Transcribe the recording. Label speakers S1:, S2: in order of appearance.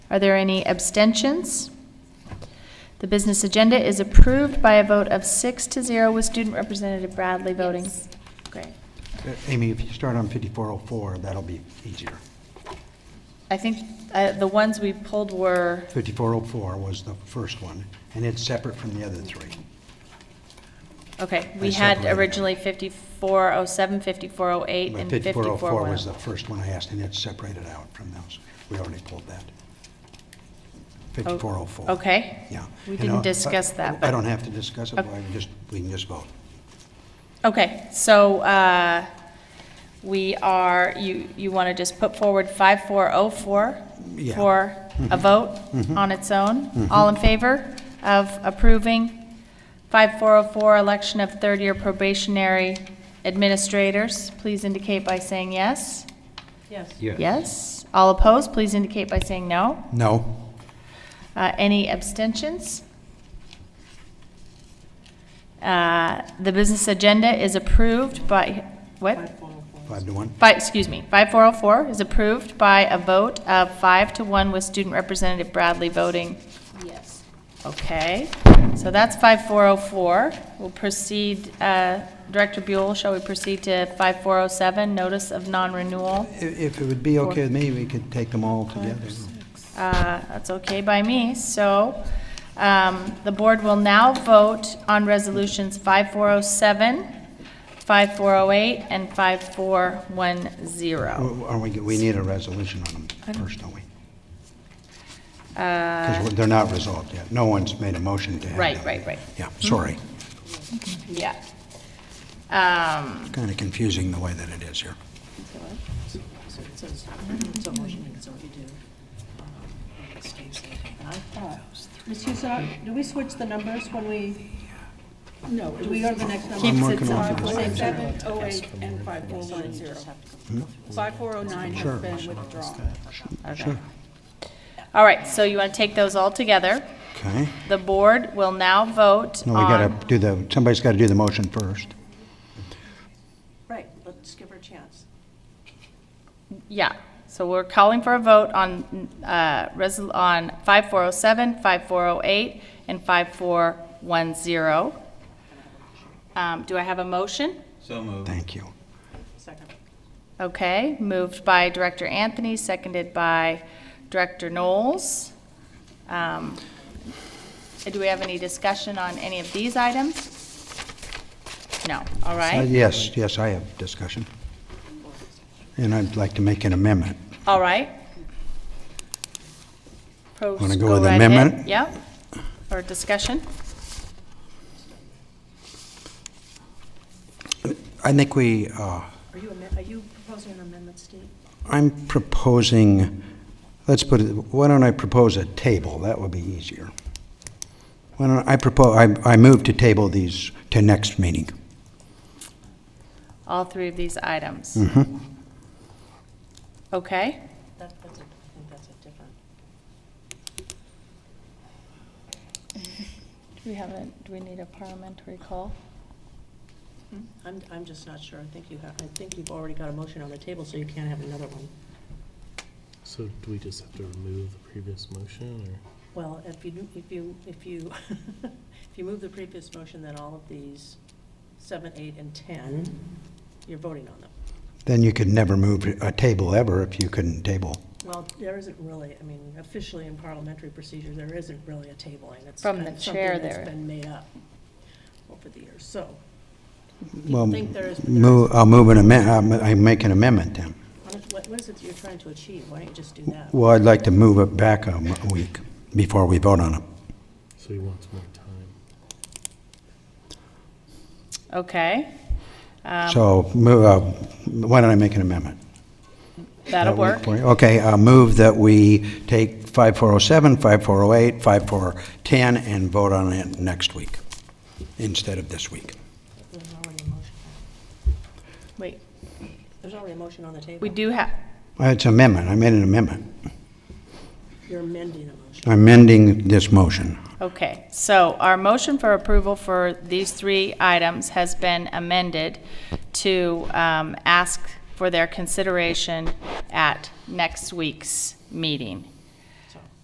S1: Are there any abstentions? The business agenda is approved by a vote of six to zero with Student Representative Bradley voting. Great.
S2: Uh, Amy, if you start on 5404, that'll be easier.
S1: I think uh, the ones we pulled were,
S2: 5404 was the first one, and it's separate from the other three.
S1: okay, we
S2: I
S1: had
S2: separated.
S1: originally 5407, 5408,
S2: But
S1: and 5404.
S2: 5404 was the first one I asked, and it's separated out from those. We already pulled that. 5404.
S1: Okay.
S2: Yeah.
S1: We
S2: And
S1: didn't
S2: I-
S1: discuss that,
S2: I
S1: but-
S2: don't have to discuss it,
S1: Okay.
S2: I can just, we can just vote.
S1: Okay, so uh, we are, you, you want to just put forward 5404
S2: Yeah.
S1: for a vote on its own? All in favor of approving 5404, election of third-year probationary administrators? Please indicate by saying yes.
S3: Yes.
S1: Yes. All opposed, please indicate by saying no.
S2: No?
S1: Uh, Any abstentions? Uh, The business agenda is approved by, what?
S2: Five to one?
S1: By, excuse me, 5404 is approved by a vote of five to one with Student Representative Bradley voting
S3: Yes.
S1: okay. So that's 5404. We'll proceed, uh, Director Buell, shall we proceed to 5407, notice of non-renewal?
S2: I- If it would be okay with me, we could take them all together.
S1: Uh, That's okay by me. So um, the board will now vote on resolutions 5407, 5408, and 5410.
S2: Oh, Are we, we need a resolution on them first, don't we?
S1: Uh,
S2: Because they're not resolved yet. No one's made a motion to have
S1: Right,
S2: them.
S1: right, Mm-hmm. right.
S2: Yeah, sorry.
S1: Yeah. Um,
S2: Kind of confusing the way that it is here.
S3: So it says, it's a motion, it's already due. It stays there. And I thought, Ms. Huson, do we switch the numbers when we, no, do we go to the next number?
S1: Keeps
S2: working
S1: its
S2: on
S1: own.
S2: it.
S4: Six, seven, oh, eight, and five, four, one, zero. Five, four, oh, nine
S2: Sure.
S4: has been withdrawn.
S1: Okay. All right, so you want to take those all together.
S2: Okay?
S1: The board will now vote
S2: No, we gotta
S1: on,
S2: do the, somebody's gotta do the motion first.
S3: Right, let's give her a chance.
S1: yeah. So we're calling for a vote on, uh, resol- on 5407, 5408, and 5410. Um, Do I have a motion?
S5: So moved.
S2: Thank you.
S3: Second.
S1: Okay, moved by Director Anthony, seconded by Director Knowles. Um, Do we have any discussion on any of these items? No, all
S2: Uh,
S1: right,
S2: Yes, yes, I have discussion. And I'd like to make an amendment.
S1: all right. Pros-
S2: Wanna go with
S1: right ahead.
S2: amendment?
S1: Yep, or discussion?
S2: I think we, uh,
S3: Are you, amen- are you proposing an amendment, Steve?
S2: I'm proposing, let's put it, why don't I propose a table? That would be easier. Why don't I propose, I, I move to table these to next meeting.
S1: All three of these items?
S2: Mm-hmm.
S1: Okay,
S3: That, that's, a- I think that's a different.
S1: do we have a, do we need a parliamentary call?
S3: I'm, I'm just not sure. I think you have, I think you've already got a motion on the table, so you can't have another one.
S6: So do we just have to remove the previous motion, or?
S3: Well, if you, do- if you, if you, if you move the previous motion, then all of these, seven, eight, and 10, you're voting on them.
S2: Then you could never move a table ever if you couldn't table.
S3: Well, there isn't really, I mean, officially in parliamentary procedure, there isn't really a tabling. It's
S1: From
S3: kind
S1: the
S3: of
S1: chair
S3: something
S1: there.
S3: that's been made up over the years, so.
S2: Well,
S3: You think there is, but there
S2: move, I'll move an amendment, I make an amendment then.
S3: isn't. What- what is it that you're trying to achieve? Why don't you just do that?
S2: Well, I'd like to move it back a m- a week before we vote on it.
S6: So he wants more time.
S1: Okay,
S3: Um.
S2: So, mo- uh, why don't I make an amendment?
S1: that'll work.
S2: for you? Okay, uh, move that we take 5407, 5408, 5410, and vote on it next week, instead of this week.
S3: There's already a motion.
S1: Wait,
S3: There's already a motion on the table.
S1: we do have,
S2: Uh, It's amendment, I made an amendment.
S3: You're amending the motion.
S2: I'm amending this motion.
S1: Okay, so our motion for approval for these three items has been amended to um, ask for their consideration at next week's meeting.